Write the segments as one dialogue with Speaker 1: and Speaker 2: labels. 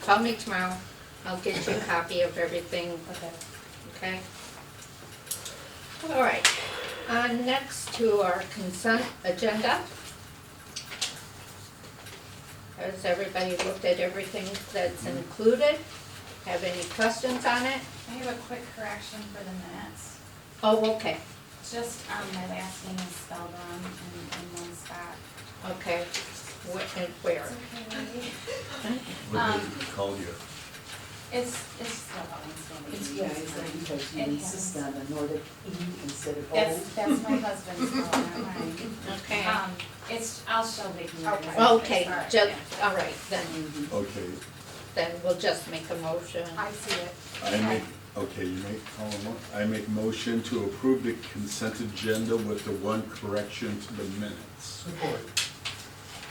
Speaker 1: Call me tomorrow, I'll get you a copy of everything,
Speaker 2: Okay.
Speaker 1: okay? All right, on next to our consent agenda. Has everybody looked at everything that's included? Have any questions on it?
Speaker 3: I have a quick correction for the minutes.
Speaker 1: Oh, okay,
Speaker 3: Just, um, my last name is spelled wrong in, in one spot.
Speaker 1: okay, what and where?
Speaker 3: It's okay, lady.
Speaker 4: What
Speaker 3: Um,
Speaker 4: they call you.
Speaker 3: It's, it's spelled out in
Speaker 2: It's,
Speaker 3: Slovene.
Speaker 2: yeah, it's like because you
Speaker 3: It
Speaker 2: insist on the Nordic E instead of O.
Speaker 3: That's, that's my husband's spelling, not mine.
Speaker 1: Okay, Ah,
Speaker 3: Um, it's, I'll show Vicki. what it is.
Speaker 1: okay,
Speaker 3: Sorry,
Speaker 1: just,
Speaker 3: yeah.
Speaker 1: all right, then,
Speaker 4: Mm-hmm.
Speaker 2: Mhm.
Speaker 4: Okay,
Speaker 1: then we'll just make a motion.
Speaker 3: I see it.
Speaker 4: I make, okay, you make, call them up. I make motion to approve the consent agenda with the one correction to the minutes.
Speaker 5: Support.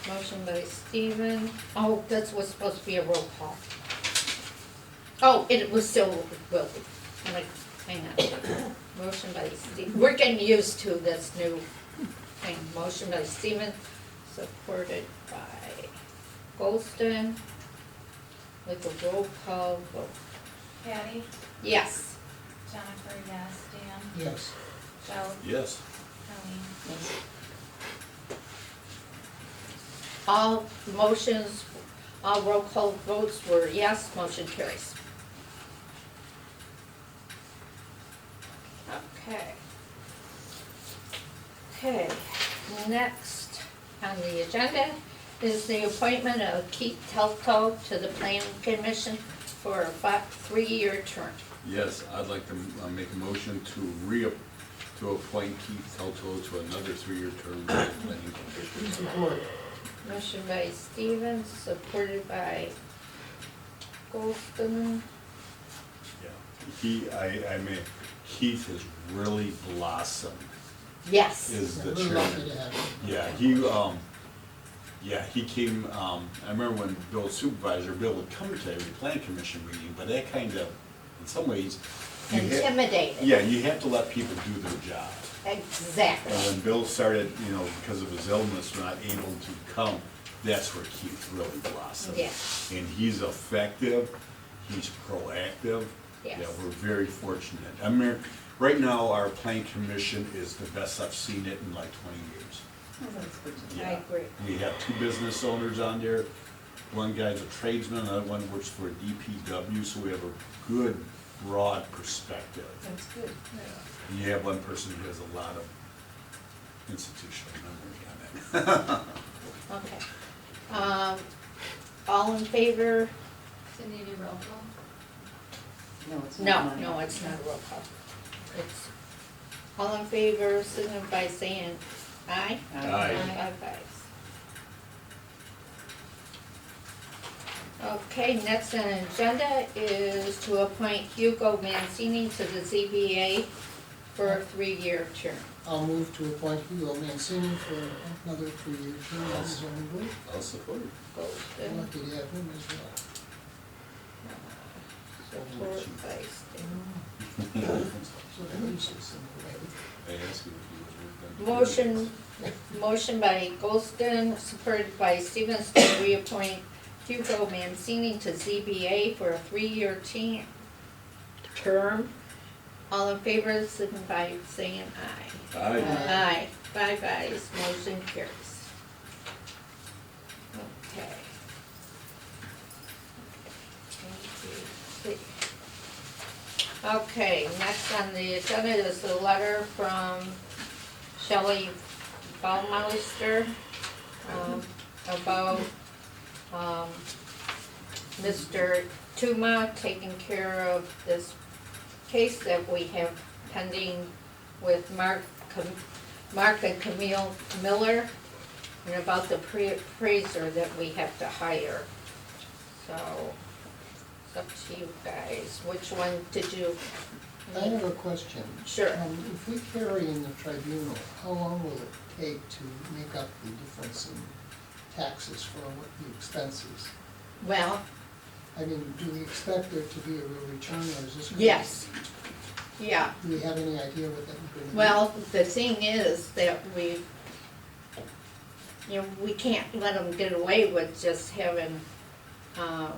Speaker 1: Motion by Steven, oh, that was supposed to be a roll call. Oh, it was still Willie, I'm like, hang on. Motion by Steven, we're getting used to this new thing. Motion by Steven, supported by Goldston, with a roll call vote.
Speaker 3: Patty,
Speaker 1: Yes,
Speaker 3: Jennifer, yes, Dan,
Speaker 5: Yes.
Speaker 3: Joe,
Speaker 4: Yes.
Speaker 3: Colleen.
Speaker 1: all motions, all roll call votes were yes, motion carries. Okay. Okay, next on the agenda is the appointment of Keith Telto to the planning commission for a fi- three-year term.
Speaker 4: Yes, I'd like to uh, make a motion to re, to appoint Keith Telto to another three-year term on the planning commission.
Speaker 5: Support.
Speaker 1: Motion by Stevens, supported by Goldston.
Speaker 4: Yeah. He, I, I mean, Keith has really blossomed
Speaker 1: Yes.
Speaker 4: as the
Speaker 5: We're lucky
Speaker 4: chairman.
Speaker 5: to have him.
Speaker 4: Yeah, he, um, yeah, he came, um, I remember when Bill supervisor, Bill would come to every plan commission meeting, but that kind of, in some ways. you ha-
Speaker 1: Intimidated.
Speaker 4: Yeah, you have to let people do their job. And
Speaker 1: Exactly.
Speaker 4: when Bill started, you know, because of his illness, not able to come, that's where Keith really blossomed.
Speaker 1: Yeah.
Speaker 4: And he's effective, he's proactive. Yeah,
Speaker 1: Yes.
Speaker 4: we're very fortunate. I mean, right now, our plan commission is the best I've seen it in like twenty years.
Speaker 2: Oh, that's good to know.
Speaker 1: I
Speaker 4: Yeah.
Speaker 1: agree.
Speaker 4: We have two business owners on there. One guy's a tradesman, another one works for DPW, so we have a good, broad perspective.
Speaker 2: That's good.
Speaker 4: And You have one person who has a lot of institutional memory on it.
Speaker 1: Okay. Um, all in favor?
Speaker 3: Does it need a roll call?
Speaker 2: No, it's not
Speaker 1: No,
Speaker 2: mine.
Speaker 1: no, it's not a roll call. It's, all in favor, signify by saying aye.
Speaker 2: Uh,
Speaker 4: Aye.
Speaker 1: Five ayes. Okay, next on the agenda is to appoint Hugo Mancini to the ZBA for a three-year term.
Speaker 5: I'll move to appoint Hugo Mancini for another three-year term on the zoning board.
Speaker 4: I'll support it.
Speaker 5: We're
Speaker 1: Golden,
Speaker 5: Lucky to have him as well.
Speaker 4: Oh,
Speaker 1: support by Stan.
Speaker 5: So that leaves us in the way.
Speaker 4: I ask you if you would.
Speaker 1: Motion, motion by Goldston, supported by Stevens to reappoint Hugo Mancini to ZBA for a three-year te- term. All in favor, signify by saying aye.
Speaker 4: Aye.
Speaker 1: Aye, five ayes, motion carries. Okay. One, two, three. Okay, next on the agenda is a letter from Shelley Baumeister, um, about, um, Mr. Tuma taking care of this case that we have pending with Mark, Cam- Mark and Camille Miller, and about the pre- appraiser that we have to hire. So, it's up to you guys, which one did you?
Speaker 5: I have a question.
Speaker 1: Sure.
Speaker 5: Um, If we carry in the tribunal, how long will it take to make up the difference in taxes for what the expenses?
Speaker 1: Well,
Speaker 5: I mean, do we expect there to be a real return or is this? gonna-
Speaker 1: yes, yeah,
Speaker 5: Do we have any idea what that would be?
Speaker 1: Well, the thing is that we, you know, we can't let them get away with just having, uh,